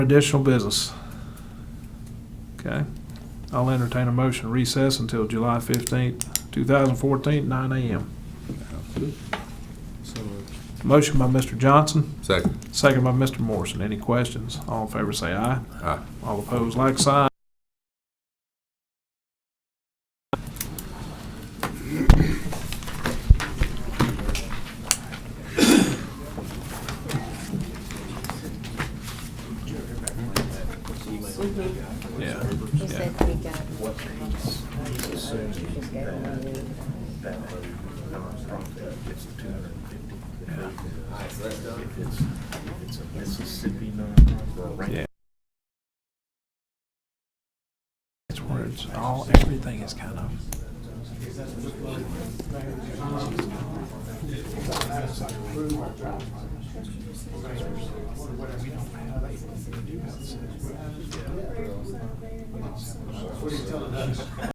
Additional business. Okay, I'll entertain a motion to recess until July fifteenth, two thousand fourteen, nine AM. So moved. Motion by Mr. Johnson, Second. second by Mr. Morrison. Any questions? All in favor say aye. Aye. All opposed, like sign. Yeah, He yeah. said we got. Just gave him a lead. It's where it's all, everything is kind of.